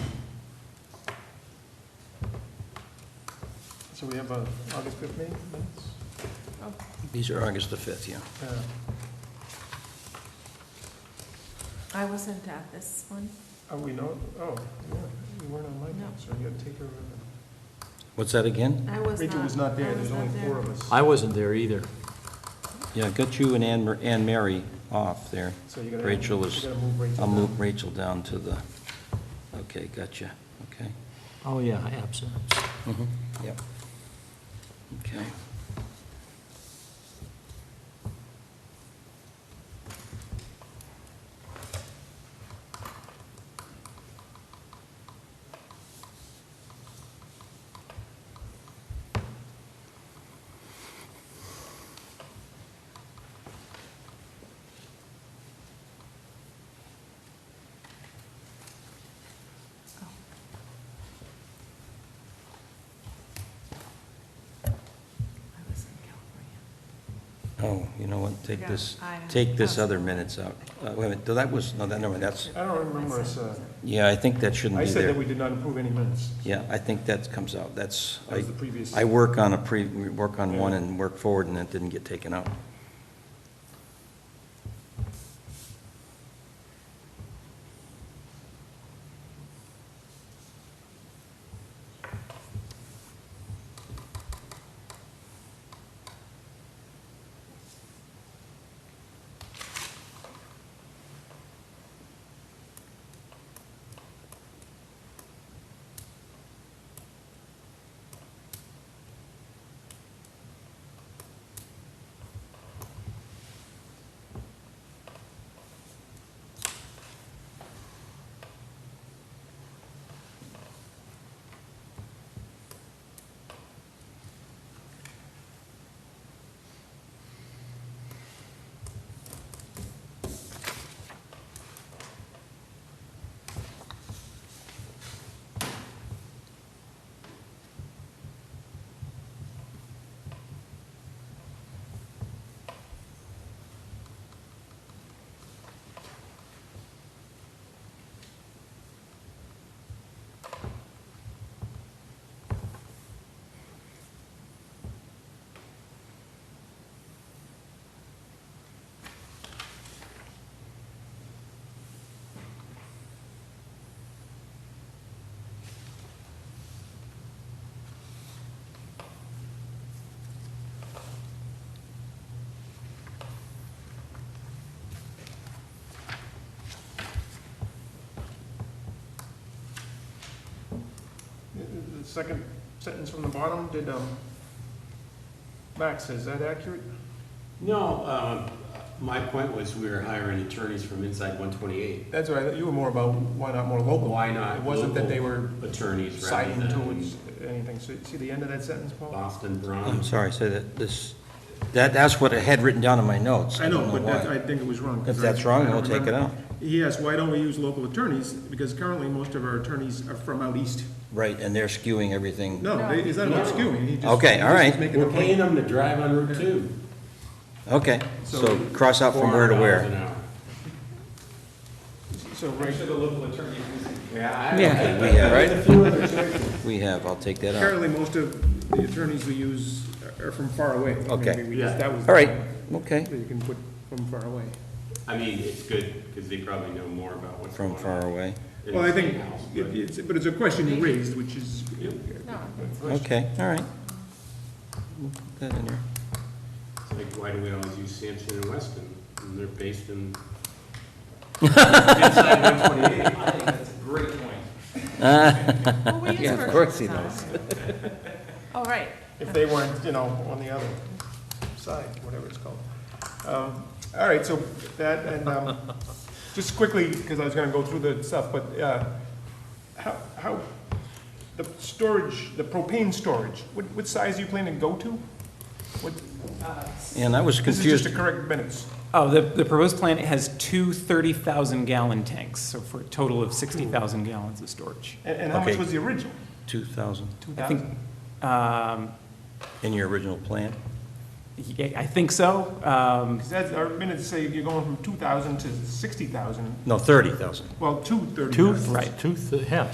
So we have a August 5th meeting minutes? These are August the 5th, yeah. Uh, I wasn't at this one. Oh, we know, oh, yeah, you weren't on my No. team, so you had to take her. uh, What's that again? I was not. Rachel was not I there, there's not only there. four of us. I wasn't there either. Yeah, got you and Anne, Mar- Anne Mary off there. So you gotta- Rachel you was- gotta move Rachel I'll move down. Rachel down to the, okay, gotcha, okay. Oh, yeah, absent. Mhm, Mm-hmm. Yep. Okay. Oh. I was in California. Oh, you know what, take Yeah, this, I- take this other minutes out. Uh, Wait a minute, that was, no, that, never mind, that's, I don't remember us, uh, yeah, I think that shouldn't I be said that there. we did not approve any minutes. Yeah, I think that comes out, that's, That I, was the previous. I work on a pre, we work on one Yeah. and work forward, and it didn't get taken out. The- Uh, the- The second sentence from the bottom, did, um, Max, is that accurate? No, um, my point was we were hiring attorneys from inside 128. That's all right, you were more about why not more local. Why not It wasn't that they were Attorneys rather siding than towards anything. So see the end of that sentence, Paul? Boston I'm Brown. sorry, say that, this, that, that's what I had written down in my notes. I know, don't but that, why. I think it was wrong. 'cause If that's I- wrong, I don't we'll take it remember. out. He asked, why don't we use local attorneys? Because currently, most of our attorneys are from out east. Right, and they're skewing everything. No, they- it's not about No. skewing, he just. Okay, he all just right. was making a We're paying point. them to drive on Route 2. Okay, so cross out from where to $400 an where. hour. So, right, Yeah, Yeah, I. we have, There's a few other choices. We have, I'll take that out. currently, most of the attorneys we use are from far away. I mean, Okay. we just- that was All right, the- okay, that You can put from far away. I mean, it's good because they probably know more about what's going from on. far away. in Well, I the think, state house, it- but- it's, but it's a question you raised, which is. No, Okay, all right. We'll put that in there. It's like, why do we always use Sampson and Weston? And they're based in. Inside 128. I think that's a great point. well, we use Yeah, of Berkshire course he Sounds. All right. if they weren't, you know, on the other side, whatever it's called. Um, All right, so that, and um, just quickly, because I was going to go through the stuff, but uh, how, how, the storage, the propane storage, what, what size are you planning to go to? What- And I was This is just confused, to correct minutes. Oh, the, the proposed plant has two 30,000 gallon tanks, so for a total of 60,000 gallons of storage. And and how much Okay. was the original? 2,000 I think, 2,000? um, in your original plan? yeah, I think so. Um, Because that's, our minutes say you're going from 2,000 to 60,000, No, 30,000. well, to 30,000. Two, right. Two, th- yeah,